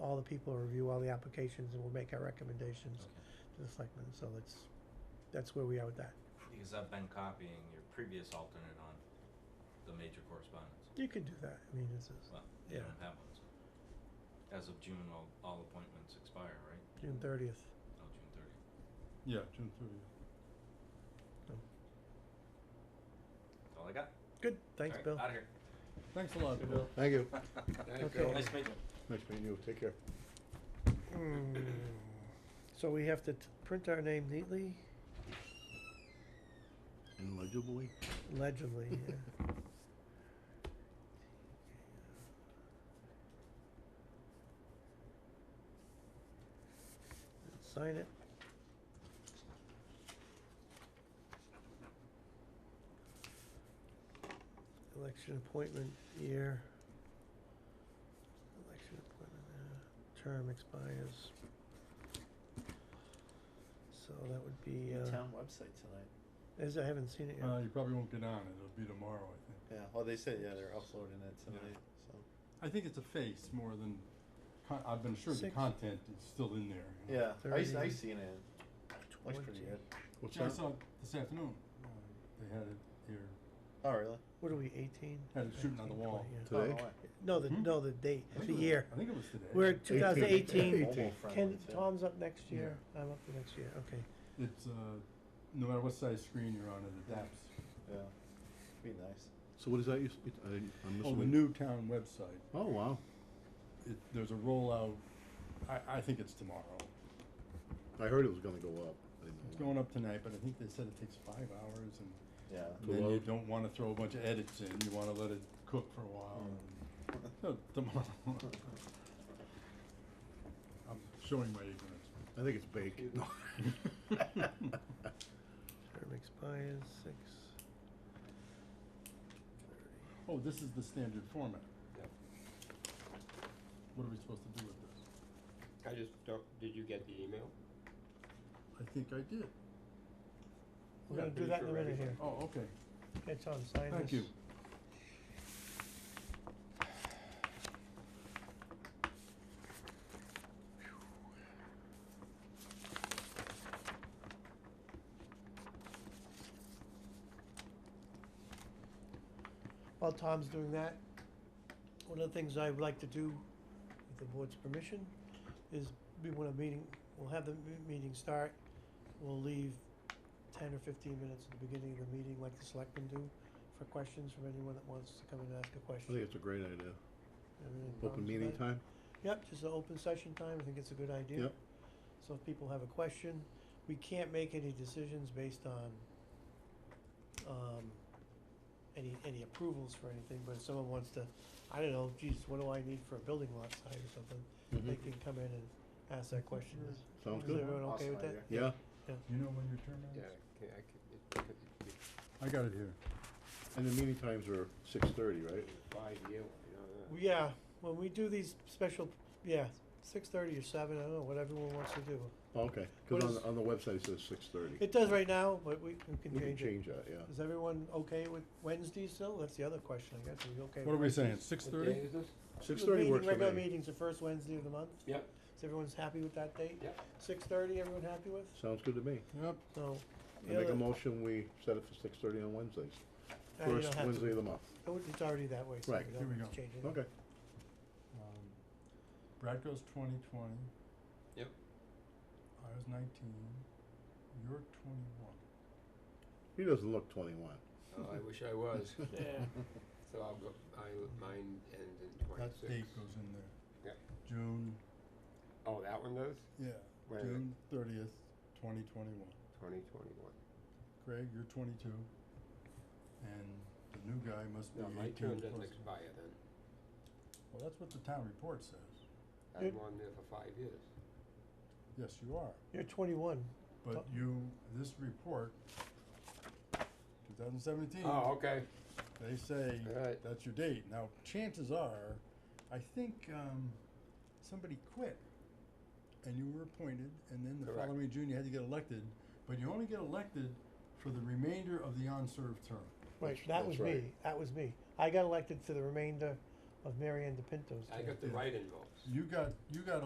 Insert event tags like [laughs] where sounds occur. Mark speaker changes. Speaker 1: the people, review all the applications, and we'll make our recommendations
Speaker 2: Okay.
Speaker 1: to the selectmen, so it's, that's where we are with that.
Speaker 2: Because I've been copying your previous alternate on the major correspondence.
Speaker 1: You could do that, I mean, it's, it's
Speaker 2: Well, you
Speaker 1: Yeah.
Speaker 2: don't have one, so. As of June, all, all appointments expire, right?
Speaker 1: June thirtieth,
Speaker 2: Oh, June thirtieth.
Speaker 3: Yeah, June thirtieth.
Speaker 2: That's all I got.
Speaker 1: good, thanks, Bill.
Speaker 2: Out of here.
Speaker 3: Thanks a lot, Bill.
Speaker 4: Thank you.
Speaker 1: Thank you.
Speaker 2: [laughs] Nice meeting you.
Speaker 4: Nice meeting you, take care.
Speaker 1: Mm. So we have to t- print our name neatly,
Speaker 4: Illegibly?
Speaker 1: legibly, yeah. Sign it. Election appointment year. Election appointment, uh, term expires. So that would be,
Speaker 5: The
Speaker 1: uh,
Speaker 5: town website tonight.
Speaker 1: as I haven't seen it yet.
Speaker 3: Uh, you probably won't get on it, it'll be tomorrow, I think.
Speaker 5: Yeah, well, they said, yeah, they're uploading it
Speaker 3: Yeah.
Speaker 5: tonight, so.
Speaker 3: I think it's a face more than, con- I've been sure the
Speaker 1: Six.
Speaker 3: content is still in there.
Speaker 5: Yeah, I, s- I
Speaker 1: Thirty.
Speaker 5: seen it. Looks pretty
Speaker 1: Twenty.
Speaker 5: good.
Speaker 4: What's
Speaker 3: Yeah, I
Speaker 4: that?
Speaker 3: saw it this afternoon, uh, they had it here,
Speaker 5: Oh, really?
Speaker 1: What are we, eighteen?
Speaker 3: had it shooting on the
Speaker 1: 19,
Speaker 3: wall.
Speaker 1: 20, yeah.
Speaker 5: Oh,
Speaker 4: Today?
Speaker 5: no way.
Speaker 1: No, the,
Speaker 3: Hmm?
Speaker 1: no, the date,
Speaker 3: I think
Speaker 1: the
Speaker 3: it was-
Speaker 1: year.
Speaker 3: I think it was today.
Speaker 1: We're two thousand eighteen.
Speaker 5: Mobile
Speaker 4: Eighteen.
Speaker 5: friendly,
Speaker 1: Ken,
Speaker 5: too.
Speaker 1: Tom's up next
Speaker 3: Yeah.
Speaker 1: year, I'm up the next year, okay.
Speaker 3: It's, uh, no matter what size screen you're on, it adapts.
Speaker 5: Yeah, be nice.
Speaker 4: So what is that, you, s- it- I, I'm
Speaker 3: Oh, the
Speaker 4: missing?
Speaker 3: new town website,
Speaker 4: Oh, wow,
Speaker 3: it, there's a rollout, I, I think it's tomorrow.
Speaker 4: I heard it was gonna go up. I didn't know
Speaker 3: It's
Speaker 4: when.
Speaker 3: going up tonight, but I think they said it takes five hours and
Speaker 5: Yeah.
Speaker 4: To
Speaker 3: then you
Speaker 4: load.
Speaker 3: don't wanna throw a bunch of edits in, you wanna let it cook for a while. and-
Speaker 6: Mm.
Speaker 3: [laughs] So tomorrow. I'm showing my ignorance.
Speaker 4: I think it's [laughs] baked. No.
Speaker 1: Term expires six.
Speaker 3: Oh, this is the standard format. What are we supposed to do with this?
Speaker 6: I just don't, did you get the email?
Speaker 3: I think I did.
Speaker 1: We're gonna
Speaker 6: Yeah,
Speaker 1: do
Speaker 6: pretty
Speaker 1: that in a
Speaker 6: sure
Speaker 1: minute
Speaker 6: everything-
Speaker 1: here.
Speaker 3: Oh, okay,
Speaker 1: Okay, Tom, sign this.
Speaker 3: thank you.
Speaker 1: While Tom's doing that, one of the things I would like to do, with the board's permission, is we want a meeting, we'll have the me- meeting start, we'll leave ten or fifteen minutes at the beginning of the meeting, like the selectmen do, for questions from anyone that wants to come and ask a
Speaker 4: I
Speaker 1: question.
Speaker 4: think it's a great idea.
Speaker 1: Have any
Speaker 4: Open
Speaker 1: problems with
Speaker 4: meeting
Speaker 1: that?
Speaker 4: time?
Speaker 1: Yep, just an open session time, I think it's a good idea.
Speaker 4: Yep.
Speaker 1: So if people have a question, we can't make any decisions based on, um, any, any approvals for anything, but if someone wants to, I don't know, geez, what do I need for a building lot size or something? They
Speaker 4: Mhm.
Speaker 1: can come in and ask that question. Is-
Speaker 4: Sounds
Speaker 1: Is
Speaker 4: good.
Speaker 1: everyone okay
Speaker 5: Awesome
Speaker 1: with that?
Speaker 5: idea.
Speaker 4: Yeah,
Speaker 3: You know when your turn
Speaker 6: Yeah,
Speaker 3: is?
Speaker 6: I can- I can- it- it- it-
Speaker 3: I got it here.
Speaker 4: and the meeting times are six thirty, right?
Speaker 6: it's five year, you know, uh,
Speaker 1: Well, Yeah, when we do these special, yeah, six thirty or seven, I don't know, what everyone wants to do.
Speaker 4: Oh, Okay,
Speaker 1: What
Speaker 4: cause on,
Speaker 1: is-
Speaker 4: the- on the website it says six thirty.
Speaker 1: It does right now, but we we can
Speaker 4: We can
Speaker 1: change it.
Speaker 4: change that, yeah.
Speaker 1: Is everyone okay with Wednesday still? That's the other question, I guess, are we okay?
Speaker 3: What are
Speaker 1: with
Speaker 3: we
Speaker 1: Wednesday?
Speaker 3: saying, six
Speaker 6: What day
Speaker 3: thirty?
Speaker 6: is this?
Speaker 4: Six
Speaker 1: The
Speaker 4: thirty
Speaker 1: meeting-
Speaker 4: works for
Speaker 1: Regular
Speaker 4: me.
Speaker 1: meeting's the first Wednesday of the month.
Speaker 6: Yep,
Speaker 1: Is everyone's happy with that date?
Speaker 6: yep.
Speaker 1: Six thirty, everyone happy with?
Speaker 4: Sounds good to me.
Speaker 3: Yep,
Speaker 1: So.
Speaker 4: I
Speaker 1: the
Speaker 4: make a
Speaker 1: other-
Speaker 4: motion, we set it for six thirty on Wednesdays,
Speaker 1: Ah, you don't
Speaker 4: first
Speaker 1: have to.
Speaker 4: Wednesday of the month.
Speaker 1: Oh, It's already that way, so
Speaker 4: Right.
Speaker 1: we
Speaker 3: Here we
Speaker 1: don't have to
Speaker 3: go.
Speaker 1: change it.
Speaker 4: Okay,
Speaker 3: Um, Bradco's twenty twenty.
Speaker 6: Yep.
Speaker 3: I was nineteen, you're twenty-one.
Speaker 4: he doesn't look twenty-one.
Speaker 6: Oh, I wish I was,
Speaker 5: Yeah.
Speaker 6: so I'll go, I, mine ends in
Speaker 3: That date
Speaker 6: twenty-six.
Speaker 3: goes in there.
Speaker 6: Yep.
Speaker 3: June,
Speaker 6: Oh, that one does?
Speaker 3: yeah,
Speaker 6: Wait a minute.
Speaker 3: June thirtieth, twenty twenty-one.
Speaker 6: Twenty twenty-one.
Speaker 3: Craig, you're twenty-two. And the new guy must be
Speaker 6: No, my
Speaker 3: eighteen
Speaker 6: term
Speaker 3: plus.
Speaker 6: doesn't expire then.
Speaker 3: Well, that's what the town report says.
Speaker 1: Yep.
Speaker 6: I'm on there for five years.
Speaker 3: Yes, you are,
Speaker 1: You're twenty-one.
Speaker 3: but
Speaker 1: Oh.
Speaker 3: you, this report, two thousand seventeen.
Speaker 6: Oh, okay.
Speaker 3: they say
Speaker 6: Alright.
Speaker 3: that's your date. Now, chances are, I think um, somebody quit and you were appointed, and then the
Speaker 6: Correct.
Speaker 3: following June you had to get elected, but you only get elected for the remainder of the on served term.
Speaker 1: Right, that
Speaker 4: That's- that's
Speaker 1: was
Speaker 4: right.
Speaker 1: me. That was me. I got elected for the remainder of Mary Ann DePinto's term.
Speaker 6: I got the
Speaker 3: Yeah.
Speaker 6: write-in votes.
Speaker 3: You got you got